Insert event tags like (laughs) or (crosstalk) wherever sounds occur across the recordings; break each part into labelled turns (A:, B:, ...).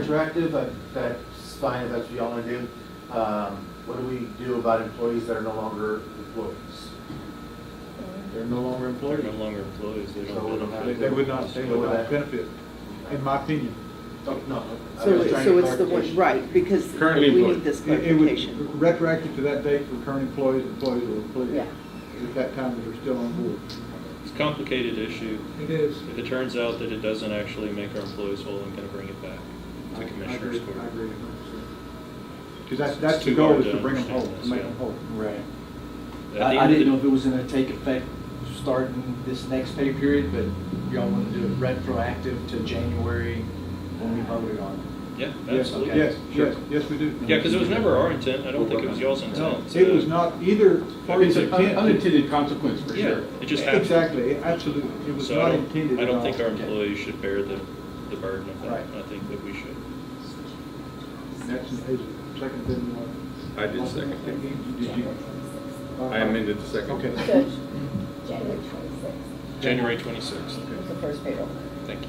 A: interactive, I- that's fine, if that's what y'all wanna do. Um, What do we do about employees that are no longer employees?
B: They're no longer
C: They're
B: employees.
C: no longer employees, they
A: So we don't have-
C: don't.
B: They they would not, they would not benefit, in my opinion.
A: Oh, No. I
D: So,
A: was trying to
D: so it's the one,
A: clarification.
D: right, because
C: Currently
D: we need
C: employed.
D: this
B: It- it would-
D: clarification.
B: Retroactive to that date for current employees, employees or employees.
D: Yeah.
B: At that time, they're still on board.
C: It's a complicated issue.
B: It is.
C: If it turns out that it doesn't actually make our employees whole, I'm gonna bring it back to Commissioners Court.
B: I agree. Because that's,
C: It's
B: that's the
C: too
B: goal,
C: hard
B: is
C: to
B: to bring them
C: understand
B: home, to
C: this,
B: make
C: yeah.
B: them whole.
E: Right.
C: At the
E: I, I
C: end of
E: didn't
C: the-
E: know if it was gonna take effect starting this next pay period, but y'all wanna do it retroactive to January when we voted on it.
C: Yeah,
B: Yes,
C: absolutely.
B: Yes,
E: Sure.
B: yes, yes, we do.
C: Yeah, because it was never our intent, I don't think it was y'all's intent.
B: It was
C: to-
B: not either party's
E: It's an un-
B: intent.
E: unintended consequence for
C: Yeah,
E: sure.
C: it just happened.
B: Exactly, it- absolutely. It was
C: So I
B: not
C: don't-
B: intended
C: I
B: at
C: don't
B: all.
C: think our employees should bear the, the burden of that.
B: Right.
C: I think that we should.
B: That's, is second then what?
F: I did second it.
B: Did you?
F: I amended the second.
B: Okay.
G: So
C: January
G: January twenty-sixth
C: 26th.
G: was the first payroll.
C: Thank you.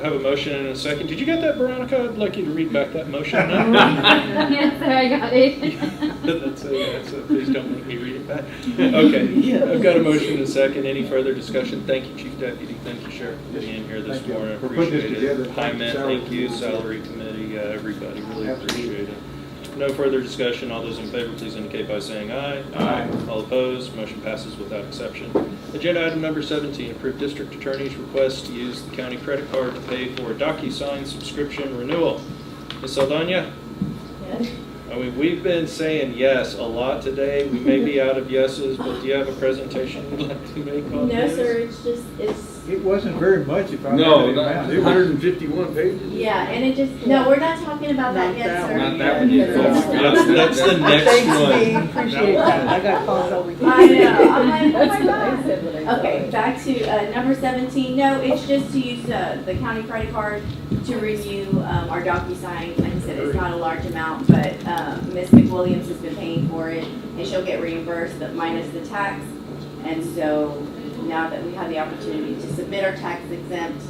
C: I have a motion and a second. Did you get that, Veronica? I'd like you to read back that motion.
B: (laughs)
C: (laughs) No?
H: Yes, sir, I got it.
C: That's it, that's it. Please don't make me read it back. Okay, I've got a motion and a second. Any further discussion? Thank you, Chief Deputy. Thank you, Sheriff, for being here this
B: Thank you.
C: morning. I
B: For putting this
C: Appreciate
B: together.
C: it. Hi, Matt,
B: Salary
C: thank you,
B: Committee.
C: Salary Committee, uh, everybody, really
B: Absolutely.
C: appreciate it. No further discussion. All those in favor, please indicate by saying aye.
B: Aye.
C: All opposed, motion passes without exception. Agenda item number 17, approve district attorney's request to use the county credit card to pay for a DocuSign subscription renewal. Ms. Saldana?
G: Yes.
C: I mean, we've been saying yes a lot today. We may be out of yeses, but do you have a presentation you'd like to make on
G: (laughs) No,
C: this?
G: sir, it's just, it's,
B: It wasn't very much if I
F: No,
B: remember the
F: not
B: amount. It was-
F: hundred and fifty-one pages.
G: yeah, and it just, no, we're not talking about that
D: Not
G: yet,
D: that
G: sir.
F: Not that one yet, folks.
C: That's, that's the next
D: Thanks,
C: one.
D: Steve, appreciate that, I got calls all week. (laughs)
G: I know, I'm like, oh my God. Okay,
H: Okay.
G: back to uh, number 17. No, it's just to use uh, the county credit card to renew um, our DocuSign. Like I said, it's not a large amount, but um, Ms. McWilliams has been paying for it, and she'll get reimbursed but minus the tax. And so now that we have the opportunity to submit our tax exempt,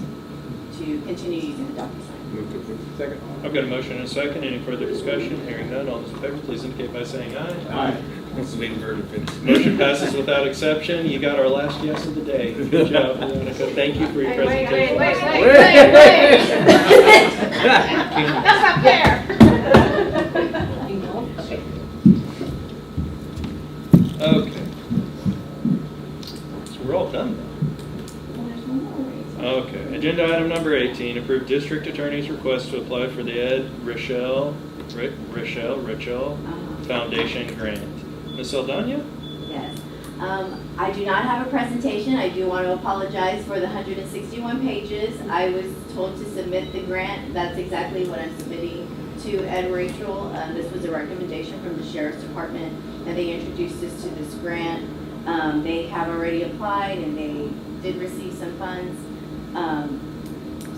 G: to continue using the DocuSign.
B: Second.
C: I've got a motion and a second. Any further discussion? Hearing none, all those in favor, please indicate by saying aye.
B: Aye.
F: Let's wait for her to finish.
C: Motion passes without exception. You got our last yes of the day. Good job, (laughs) Veronica. Thank you for your
H: Wait, wait, wait, wait,
C: presentation.
H: wait, wait, wait. That's not fair.
C: Okay. So we're all done now. Okay, agenda item number 18, approve district attorney's request to apply for the Ed Rochelle, Ri- Rochelle, Rochelle
G: Uh-huh.
C: Foundation Grant. Ms. Saldana?
G: Yes. Um, I do not have a presentation. I do want to apologize for the 161 pages. I was told to submit the grant. That's exactly what I'm submitting to Ed Rachel. Uh, This was a recommendation from the Sheriff's Department, and they introduced us to this grant. Um, They have already applied, and they did receive some funds. Um,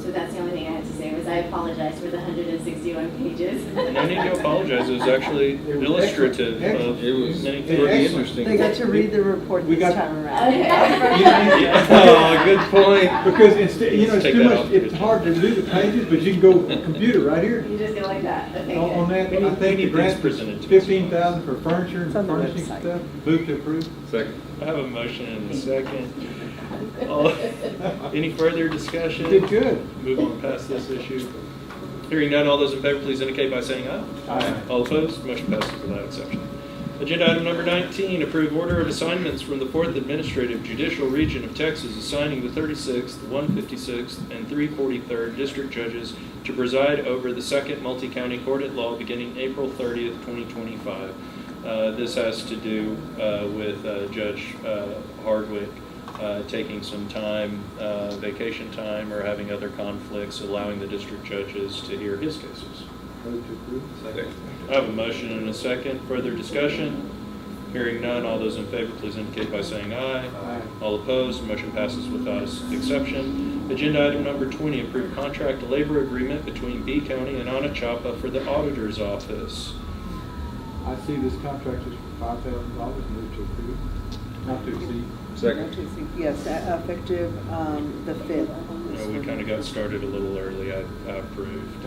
G: So that's the only thing I had to say, was I apologize for the 161 pages.
C: No need to apologize, it
G: (laughs)
C: was actually
B: It was
C: illustrative
B: excellent.
C: of
F: It was
C: many
B: Excellent.
F: pretty
C: things.
D: They
F: interesting.
D: got to read the report
B: We
D: this
B: got-
D: time around.
G: Okay.
D: (laughs)
B: (laughs)
C: Oh, good point.
B: Because instead, you know,
C: Let's
B: it's
C: take
B: too
C: that
B: much,
C: off.
B: it's hard to do the pages, but you can go computer right here.
G: You just go like that, okay,
B: On
G: good.
B: on that,
C: We need-
B: I
C: we
B: think
C: need
B: the
C: these
B: grant
C: presented to us.
B: fifteen thousand for furniture and
D: It's on the
B: furnishing
D: website.
B: stuff. Move to approve.
F: Second.
C: I have a motion and a second.
G: (laughs)
C: All-
G: Oh.
C: Any further discussion?
B: Did good.
C: Move on past this issue. Hearing none, all those in favor, please indicate by saying aye.
B: Aye.
C: All opposed, motion passes without exception. Agenda item number 19, approve order of assignments from the 4th Administrative Judicial Region of Texas assigning the 36th, 156th, and 343rd District Judges to preside over the 2nd Multi-County Court at Law beginning April 30th, 2025. Uh, This has to do uh, with uh, Judge uh, Hardwick uh, taking some time, uh, vacation time, or having other conflicts, allowing the district judges to hear his cases.
B: Move to approve.
F: Second.
C: I have a motion and a second. Further discussion? Hearing none, all those in favor, please indicate by saying aye.
B: Aye.
C: All opposed, motion passes without exception. Agenda item number 20, approve contract labor agreement between B County and Anachapa for the auditor's office.
B: I see this contract is for five thousand dollars. Move to approve. Not to exceed.
F: Second.
D: Yes, uh, effective, um, the fifth.
C: You know, We kind of got started a little early, I I approved.